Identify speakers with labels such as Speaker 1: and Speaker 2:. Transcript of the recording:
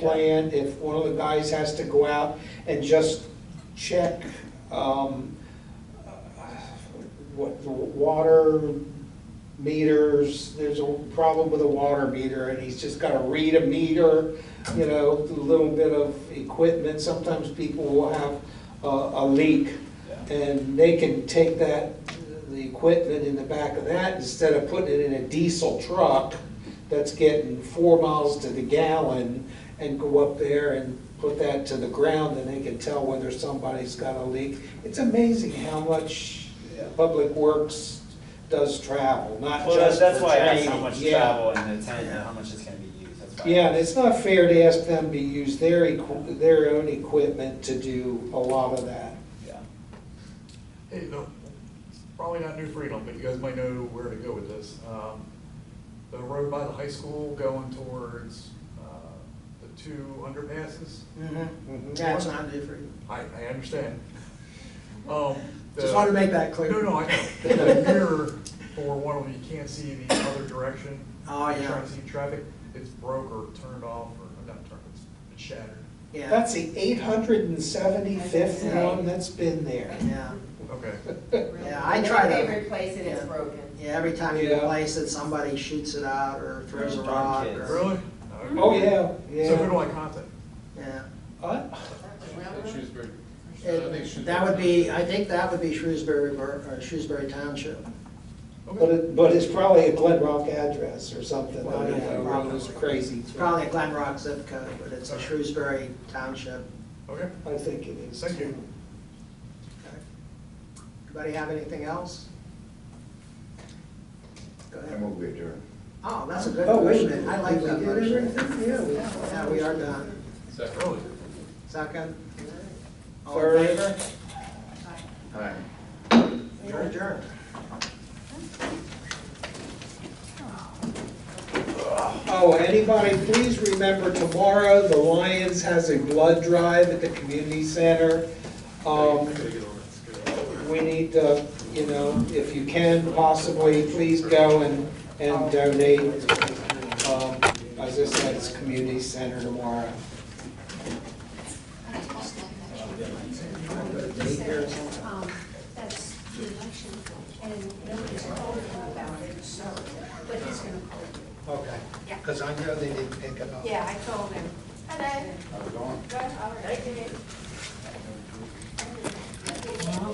Speaker 1: plan, if one of the guys has to go out and just check, um, what, the water meters, there's a problem with a water meter, and he's just gotta read a meter, you know, a little bit of equipment, sometimes people will have a, a leak, and they can take that, the equipment in the back of that, instead of putting it in a diesel truck that's getting four miles to the gallon, and go up there and put that to the ground, and they can tell whether somebody's got a leak. It's amazing how much Public Works does travel, not
Speaker 2: Well, that's,
Speaker 1: just
Speaker 2: that's
Speaker 1: for
Speaker 2: why I asked how
Speaker 1: training.
Speaker 2: much
Speaker 1: Yeah.
Speaker 2: travel and the time, and how much it's gonna be used, that's why. I
Speaker 1: Yeah, and
Speaker 2: asked.
Speaker 1: it's not fair to ask them to use their, equi- their own equipment to do a lot of that.
Speaker 2: Yeah.
Speaker 3: Hey, no, probably not New Freedom, but you guys might know where to go with this. Um, The road by the high school going towards uh, the two underpasses,
Speaker 1: Mm-hmm.
Speaker 4: Mm-hmm. That's not new for you.
Speaker 3: I, I understand. Um, the-
Speaker 4: Just wanted to make that clear.
Speaker 3: No, no, I know. The mirror for one of them, you can't see the other direction.
Speaker 4: Oh,
Speaker 3: You're
Speaker 4: yeah.
Speaker 3: Trying to see traffic, it's broke or turned off, or not turned, it's- it's shattered.
Speaker 4: Yeah.
Speaker 1: That's e- the eight hundred and seventy-fifth
Speaker 4: Yeah.
Speaker 1: one that's been there.
Speaker 4: Yeah,
Speaker 3: Okay.
Speaker 4: yeah, I try to.
Speaker 5: They replace it, it's
Speaker 4: yeah.
Speaker 5: broken.
Speaker 4: Yeah, every time you
Speaker 1: Yeah.
Speaker 4: replace it, somebody shoots it out or throws a
Speaker 2: Darn
Speaker 4: rock
Speaker 2: kids.
Speaker 4: or.
Speaker 3: Really? Okay.
Speaker 1: Oh, yeah,
Speaker 3: So who do
Speaker 1: yeah.
Speaker 3: I contact?
Speaker 4: Yeah.
Speaker 1: I-
Speaker 6: Shrewsbury. I think
Speaker 4: It-
Speaker 6: Shrewsbury-
Speaker 4: That would be, I think that would be Shrewsbury, Bur- or Shrewsbury Township.
Speaker 1: But it, but it's probably a Glen Rock address or something, I
Speaker 4: Well,
Speaker 1: don't
Speaker 4: yeah,
Speaker 1: know, one of those crazy.
Speaker 4: It's probably a Glen Rock zip code, but it's a Shrewsbury Township.
Speaker 3: Okay.
Speaker 1: I think it is.
Speaker 3: Thank you.
Speaker 4: Okay. Anybody have anything else? Go
Speaker 7: I
Speaker 4: ahead.
Speaker 7: move we adjourn.
Speaker 4: Oh, that's a good
Speaker 1: Oh, wait a
Speaker 4: motion.
Speaker 1: minute.
Speaker 4: I like
Speaker 1: Did we
Speaker 4: that
Speaker 1: get
Speaker 4: motion.
Speaker 1: everything? Yeah, we-
Speaker 4: Yeah, we are done.
Speaker 6: Second.
Speaker 3: Really?
Speaker 4: Second? All in
Speaker 1: Third.
Speaker 4: favor?
Speaker 7: Aye.
Speaker 4: You're adjourned.
Speaker 1: Oh, anybody, please remember tomorrow, the Lions has a blood drive at the community center. Um, we need to, you know, if you can possibly, please go and, and donate. Um, as I said, it's community center tomorrow.
Speaker 8: Um, that's the election, and nobody's called him about it, so, but he's gonna call you.
Speaker 1: Okay,
Speaker 8: Yeah.
Speaker 1: because I know they didn't pick it up.
Speaker 8: Yeah, I told him. Hello.
Speaker 7: How's it going?
Speaker 8: Good, all right.